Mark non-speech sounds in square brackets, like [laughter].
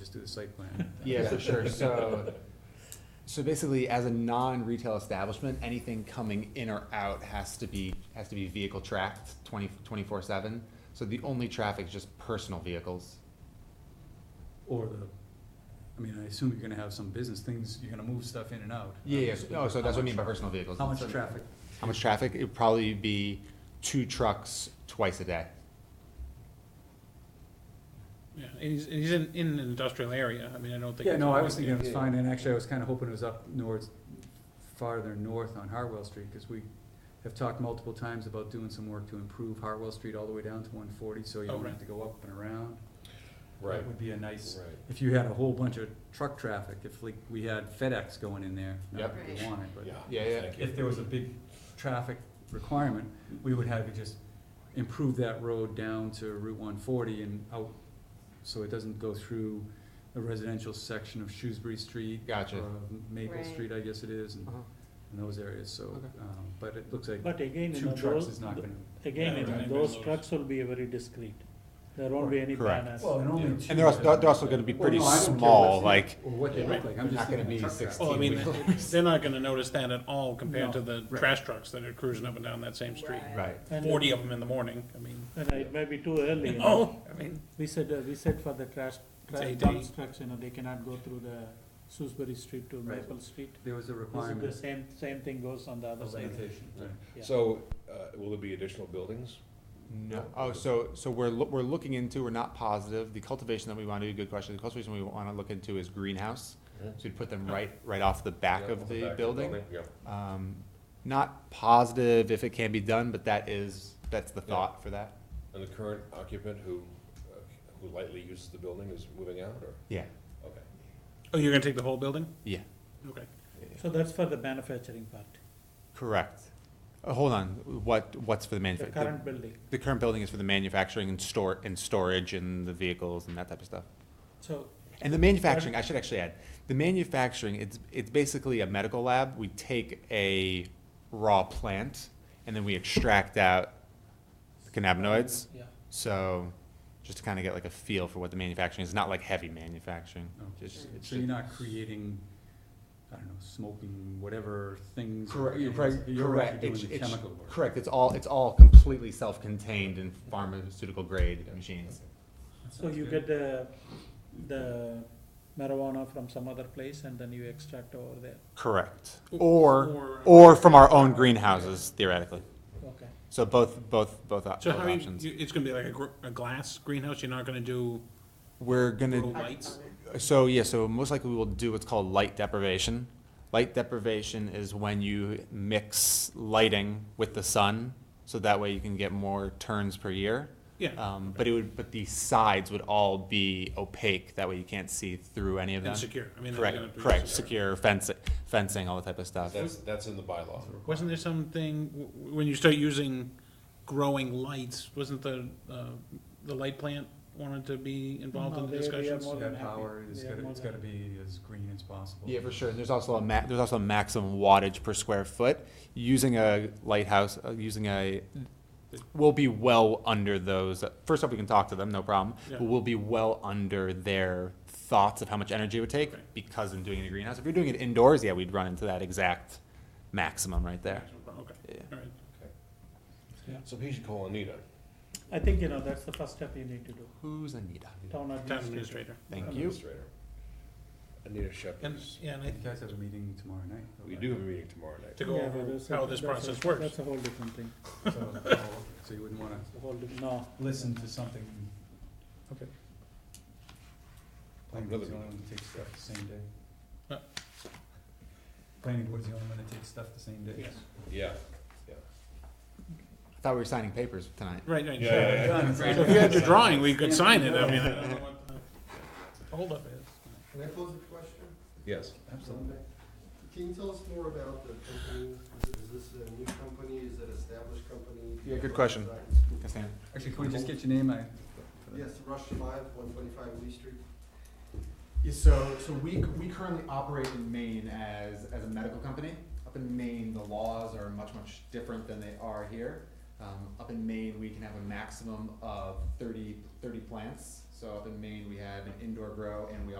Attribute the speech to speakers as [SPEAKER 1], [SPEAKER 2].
[SPEAKER 1] just do the site plan.
[SPEAKER 2] Yeah, for [laughs] sure. So, so basically, as a non-retail establishment, anything coming in or out has to be, has to be vehicle tracked 20 24 seven. So the only traffic is just personal vehicles.
[SPEAKER 1] [laughs] Or the, I mean, I assume you're gonna have some business things, you're gonna move stuff in and out.
[SPEAKER 2] Yeah, yeah. Oh, so that's what I mean by personal vehicles.
[SPEAKER 1] How much traffic?
[SPEAKER 2] How much traffic? It'd probably be two trucks twice a day.
[SPEAKER 3] Yeah, and he's, and he's in, in an industrial area, I mean, I don't think.
[SPEAKER 1] Yeah,
[SPEAKER 3] it's
[SPEAKER 1] no, I
[SPEAKER 3] a-
[SPEAKER 1] was thinking it was fine, and actually, I was kinda hoping it was up north, farther north on Hartwell Street, cause we have talked multiple times about doing some work to improve Hartwell Street all the way down to one forty, so you
[SPEAKER 3] Oh,
[SPEAKER 1] don't
[SPEAKER 3] right.
[SPEAKER 1] have to go up and around.
[SPEAKER 4] Right,
[SPEAKER 1] That would be a nice,
[SPEAKER 4] right.
[SPEAKER 1] if you had a whole bunch of truck traffic, if like, we had FedEx going in there, not
[SPEAKER 2] Yep.
[SPEAKER 1] that we
[SPEAKER 5] Right.
[SPEAKER 1] want it, but.
[SPEAKER 4] Yeah.
[SPEAKER 2] Yeah, yeah.
[SPEAKER 4] thank you.
[SPEAKER 1] if there was a big traffic requirement, we would have to just improve that road down to Route one forty and out, so it doesn't go through the residential section of Shrewsbury Street.
[SPEAKER 2] Gotcha.
[SPEAKER 1] or Maple
[SPEAKER 5] Right.
[SPEAKER 1] Street, I guess it is, and,
[SPEAKER 2] Uh-huh.
[SPEAKER 1] and those areas, so,
[SPEAKER 2] Okay.
[SPEAKER 1] um, but it looks like
[SPEAKER 6] But again, you
[SPEAKER 1] two
[SPEAKER 6] know,
[SPEAKER 1] trucks
[SPEAKER 6] those,
[SPEAKER 1] is not gonna.
[SPEAKER 6] again, you
[SPEAKER 3] Yeah,
[SPEAKER 6] know,
[SPEAKER 3] right.
[SPEAKER 6] those trucks will be very discreet. There won't be any
[SPEAKER 2] Correct.
[SPEAKER 6] banners.
[SPEAKER 1] Well, and only two.
[SPEAKER 2] And they're also, they're also gonna be pretty small, like,
[SPEAKER 1] Or what they look like, I'm
[SPEAKER 2] They're
[SPEAKER 1] just
[SPEAKER 2] not gonna
[SPEAKER 1] thinking
[SPEAKER 2] be
[SPEAKER 1] truck traffic.
[SPEAKER 2] 16.
[SPEAKER 3] Well, Oh, I mean, they're not gonna notice that at all compared to the
[SPEAKER 1] Right.
[SPEAKER 3] trash trucks that are cruising up and down that same street.
[SPEAKER 2] right.
[SPEAKER 6] And, uh,
[SPEAKER 3] Forty of Oh. them in the morning, I mean,
[SPEAKER 6] And it may be too early,
[SPEAKER 3] you
[SPEAKER 6] you know.
[SPEAKER 3] know, I mean,
[SPEAKER 6] We said, uh, we said for the trash,
[SPEAKER 3] It's
[SPEAKER 6] trash
[SPEAKER 3] eight
[SPEAKER 6] dump trucks, you know, they cannot go through the Shrewsbury Street to
[SPEAKER 1] Right.
[SPEAKER 6] Maple Street.
[SPEAKER 1] There was a
[SPEAKER 6] This is the
[SPEAKER 1] requirement
[SPEAKER 6] same, same thing goes on the other
[SPEAKER 1] of
[SPEAKER 6] side.
[SPEAKER 1] limitation, right.
[SPEAKER 6] Yeah.
[SPEAKER 4] So, uh, will there be additional buildings?
[SPEAKER 2] No, oh, so, so we're, loo- we're looking into, we're not positive, the cultivation that we wanna do, good question, the cultivation we wanna look into is greenhouse. So we'd put them right, right off the back
[SPEAKER 4] Yeah,
[SPEAKER 2] of
[SPEAKER 4] back
[SPEAKER 2] the building.
[SPEAKER 4] Yeah,
[SPEAKER 2] Um, not positive if it can be done, but that is, that's the
[SPEAKER 4] Yeah.
[SPEAKER 2] thought for that.
[SPEAKER 4] and the current occupant who, uh, who lightly uses the building is moving out, or,
[SPEAKER 2] Yeah.
[SPEAKER 4] okay.
[SPEAKER 3] oh, you're gonna take the whole building?
[SPEAKER 2] Yeah.
[SPEAKER 3] Okay.
[SPEAKER 6] So that's for the manufacturing part,
[SPEAKER 2] Correct. Uh, hold on, what, what's for the
[SPEAKER 6] the
[SPEAKER 2] manufacturing?
[SPEAKER 6] current building.
[SPEAKER 2] The current building is for the manufacturing and store, and storage and the vehicles and that type of stuff.
[SPEAKER 6] So,
[SPEAKER 2] And the manufacturing, I should actually add, the manufacturing, it's, it's basically a medical lab. We take a raw plant and then we extract out the cannabinoids.
[SPEAKER 6] yeah,
[SPEAKER 2] So just to kind of get like a feel for what the manufacturing is, not like heavy manufacturing.
[SPEAKER 1] No.
[SPEAKER 2] Just- it's
[SPEAKER 1] So you're
[SPEAKER 2] just-
[SPEAKER 1] not creating, I don't know, smoking, whatever things.
[SPEAKER 2] Correct, you're
[SPEAKER 1] organics.
[SPEAKER 2] correct,
[SPEAKER 1] You're right,
[SPEAKER 2] correct.
[SPEAKER 1] you're
[SPEAKER 2] It's-
[SPEAKER 1] doing the
[SPEAKER 2] it's-
[SPEAKER 1] chemical work.
[SPEAKER 2] Correct, it's all, it's all completely self-contained in pharmaceutical grade machines.
[SPEAKER 1] That
[SPEAKER 6] so
[SPEAKER 1] sounds
[SPEAKER 6] you
[SPEAKER 1] good.
[SPEAKER 6] get the, the marijuana from some other place and then you extract over there,
[SPEAKER 2] Correct. Or,
[SPEAKER 3] Or, uh,
[SPEAKER 2] or from our own greenhouses theoretically.
[SPEAKER 6] okay.
[SPEAKER 2] So both, both, both op-
[SPEAKER 3] So
[SPEAKER 2] both
[SPEAKER 3] how many,
[SPEAKER 2] options.
[SPEAKER 3] you- it's gonna be like a, gr- a glass greenhouse, you're not gonna do
[SPEAKER 2] We're gonna,
[SPEAKER 3] grow lights?
[SPEAKER 2] So yeah, so most likely we will do what's called light deprivation. Light deprivation is when you mix lighting with the sun, so that way you can get more turns per year.
[SPEAKER 1] Uh,
[SPEAKER 3] Yeah,
[SPEAKER 2] Um, but it would, but the sides would all be opaque. That way you can't see through any of them.
[SPEAKER 3] and secure, I mean. they're gonna
[SPEAKER 2] Correct,
[SPEAKER 3] be
[SPEAKER 2] correct. Secure fencing, fencing, all that type of stuff.
[SPEAKER 4] That's, that's in the bylaw.
[SPEAKER 3] Wasn't there something, w- w- when you start using growing lights, wasn't the, uh, the light plant wanted to be involved
[SPEAKER 6] No,
[SPEAKER 3] in the
[SPEAKER 6] they- they are
[SPEAKER 3] discussions?
[SPEAKER 6] more
[SPEAKER 1] That
[SPEAKER 6] than happy.
[SPEAKER 1] power is
[SPEAKER 6] They are
[SPEAKER 1] gotta,
[SPEAKER 6] more
[SPEAKER 1] it's
[SPEAKER 6] than
[SPEAKER 1] gotta be as green as possible.
[SPEAKER 2] Yeah, for sure. And there's also a ma- there's also a maximum wattage per square foot. Using a lighthouse, uh, using a, we'll be well under those. First off, we can talk to them, no problem. But
[SPEAKER 3] Yeah.
[SPEAKER 2] we'll be well under their thoughts of how much energy it would take
[SPEAKER 3] Okay.
[SPEAKER 2] because in doing it in a greenhouse. If you're doing it indoors, yeah, we'd run into that exact maximum right there.
[SPEAKER 3] Okay,
[SPEAKER 2] Yeah.
[SPEAKER 3] all right.
[SPEAKER 4] So he should call Anita.
[SPEAKER 6] I think, you know, that's the first step you need to do,
[SPEAKER 2] Who's Anita?
[SPEAKER 6] town
[SPEAKER 3] Town
[SPEAKER 6] administrator.
[SPEAKER 3] administrator.
[SPEAKER 2] Thank you.
[SPEAKER 4] administrator. Anita Shepherd.
[SPEAKER 3] And, yeah, and I
[SPEAKER 1] You guys have a meeting tomorrow night?
[SPEAKER 4] We do have a meeting tomorrow night.
[SPEAKER 3] to go
[SPEAKER 6] Yeah,
[SPEAKER 3] over
[SPEAKER 6] that's a-
[SPEAKER 3] how this
[SPEAKER 6] that's a-
[SPEAKER 3] process works.
[SPEAKER 6] That's a whole different thing,
[SPEAKER 1] So oh, so you wouldn't wanna
[SPEAKER 6] It's a whole, di- no.
[SPEAKER 1] listen to something. Okay. Planning board's the
[SPEAKER 4] Another
[SPEAKER 1] only one that takes stuff the same day.
[SPEAKER 3] Huh?
[SPEAKER 1] Planning board's the only one that takes stuff the same day.
[SPEAKER 3] Yes.
[SPEAKER 4] Yeah.
[SPEAKER 2] I thought we were signing papers tonight.
[SPEAKER 3] Right, right.
[SPEAKER 4] Yeah, yeah, yeah.
[SPEAKER 1] Done.
[SPEAKER 3] So if you had your drawing, we could sign it, I mean, I don't know what the holdup is.
[SPEAKER 7] Can I pose a question?
[SPEAKER 4] Yes.
[SPEAKER 1] Absolutely.
[SPEAKER 7] Can you tell us more about the company? Is this a new company? Is it established company?
[SPEAKER 2] Yeah, good question. Yes, ma'am.
[SPEAKER 1] Actually, can we just get your name? I. for the-
[SPEAKER 7] Yes, Rush Live, one twenty-five Lee Street. Yeah, so, so we, we currently operate in Maine as, as a medical company.
[SPEAKER 8] Up in Maine, the laws are much, much different than they are here. Um, up in Maine, we can have a maximum of 30, 30 plants. So up in Maine, we have an indoor grow and we also